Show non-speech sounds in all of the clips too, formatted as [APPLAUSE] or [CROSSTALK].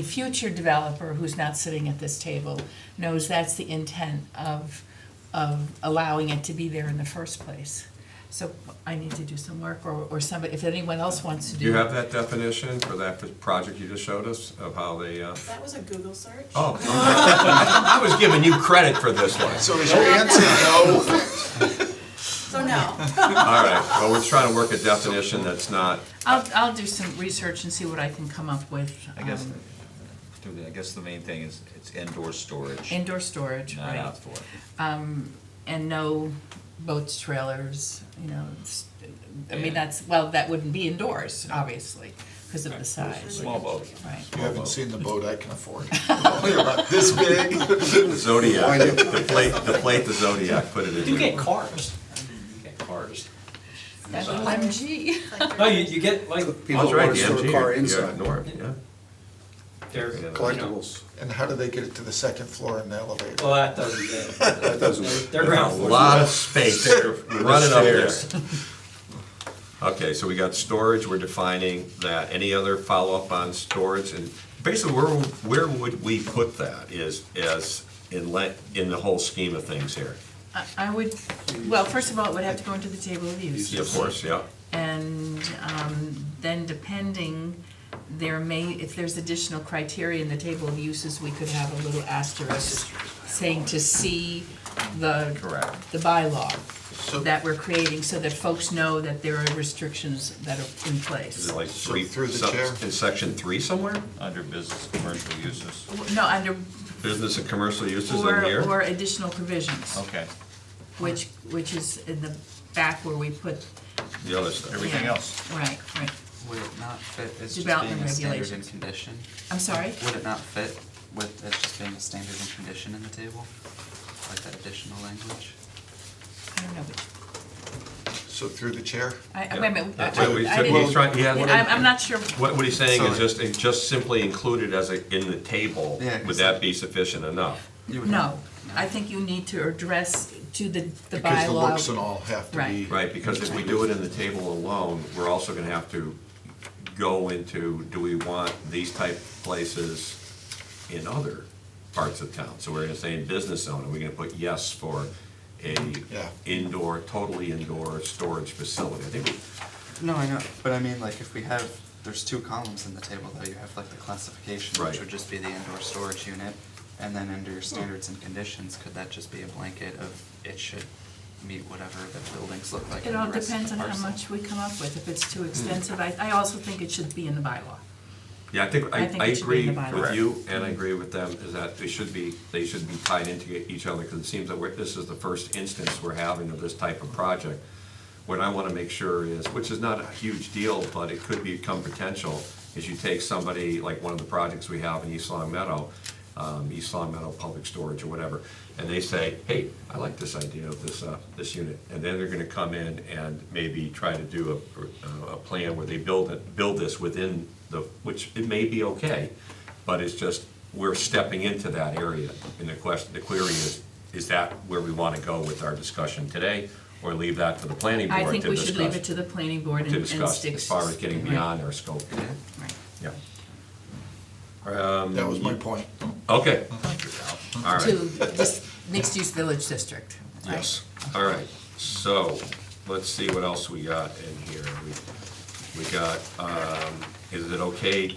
A future developer who's not sitting at this table knows that's the intent of, of allowing it to be there in the first place. So I need to do some work, or, or somebody, if anyone else wants to do. Do you have that definition for that project you just showed us of how they, uh, That was a Google search. oh, okay. [LAUGHS] I was giving you credit for this one. So is your answer no? So no, All right, well, we're trying to work a definition that's not, I'll, I'll do some research and see what I can come up with. I guess, um, I guess the main thing is it's indoor storage, Indoor storage, not right, Um, outdoor. and no boats, trailers, you know, s- I mean, And- that's, well, that wouldn't be indoors, obviously, because of the size, Small boat. right? You haven't seen the boat I can [LAUGHS] afford. Only about this big. Zodiac, deflate, deflate the Zodiac, put it in. You do get your- cars. You get cars. MG. it's like [LAUGHS] No, you're- you, you get like People That's that right, want the to store MG, a car yeah, inside. Norm, yeah. they're you know, Collectibles. And how do they get it to the second floor in the elevator? Well, that doesn't. [LAUGHS] That doesn't. They're ground A floor. lot of space, running up there. Stairs. [LAUGHS] Okay, so we got storage, we're defining that. Any other follow-up on storage? And basically, where, where would we put that is, as in, le- in the whole scheme of things here? I- I would, well, first of all, it would have to go into the table of uses. Of course, yeah. And um, then depending, there may, if there's additional criteria in the table of uses, we could have a little asterisk saying to see the, Correct. the bylaw So- that we're creating, so that folks know that there are restrictions that are in Is place. it like So three, through the some- chair. in section three somewhere? Under business, commercial uses. No, under, Business and commercial uses in or, or here? additional provisions, Okay, which, which is in the back where we put, The other stuff. everything Yeah. else. right, right. Would it not fit as just Development being a standard and regulations. condition? I'm sorry? Would it not fit with as just being a standard and condition in the table? Like that additional language? I don't know which So through the chair? I, I- wait a minute. I- That's what we I said. didn't- He's trying- he had- I'm, I'm not sure, What, what he's saying is Sorry. just, it just simply included as a, in the table, Yeah, 'cause- would that be sufficient enough? You would no, have- I think you need to address to the, the Because the looks and bylaw. all have to be. Right. Right, because if we do it in the table alone, we're also gonna have to go into, do we want these type places in other parts of town? So we're gonna say in business zone, are we gonna put yes for a Yeah. indoor, totally indoor storage facility? I think we No, I know, but I mean, like, if we have, there's two columns in the table, though, you have like the classification, Right. which would just be the indoor storage unit, and then under your standards and conditions, could that just be a blanket of it should meet whatever the buildings look like It and the all rest of depends the on how parcel? much we come up with, if it's Mm. too extensive, I, I also think it should be in the bylaw. Yeah, I think, I I, think I it should be in agree the bylaw. with you, and I agree with them, is that they should be, they should be tied into each other, because it seems that we're, this is the first instance we're having of this type of project. What I wanna make sure is, which is not a huge deal, but it could become potential, is you take somebody, like one of the projects we have in East Long Meadow, um, East Long Meadow Public Storage or whatever, and they say, hey, I like this idea of this, uh, this unit. And then they're gonna come in and maybe try to do a, a plan where they build it, build this within the, which it may be okay, but it's just, we're stepping into that area. And the question, the query is, is that where we wanna go with our discussion today? Or leave that to the planning board I to discuss? think we should leave it to the planning board and To and stick. discuss, as far as getting right, beyond our scope, right. yeah. um, That was my point. Okay, all right. To this mixed-use village district. right? Yes. All right, so, let's see what else we got in here. We- We got, um, is it okay,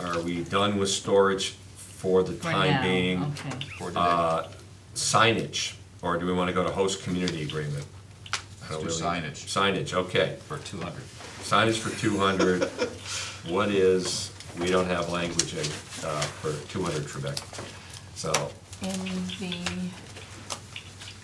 are we done with storage for the For time now, being? okay. For today. Uh, Signage, or do we wanna go to host community agreement? I don't Let's do really- signage. Signage, okay. For two hundred. Signage for two hundred, what is, we don't have language in, uh, for two hundred Trebek. So, In the,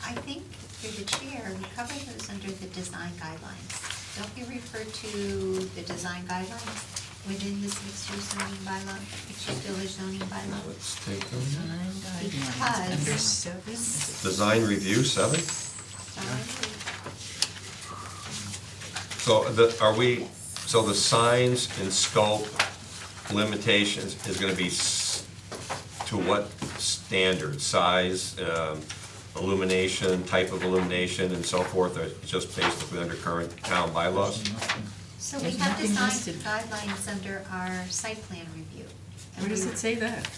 I think through the chair, we covered those under the design guidelines. Don't you refer to the design guidelines within this mixed-use zoning bylaw, mixed-use village zoning bylaw? let's take them. nine guidelines, Because- under seven, is it- Design review, seven? Sorry. So the, are we, so the signs and scope limitations is gonna be s- to what standard? Size, um, illumination, type of illumination and so forth, or just basically under current town bylaws? So we There's have nothing design listed. guidelines under our site plan review. And Where does we- it say that?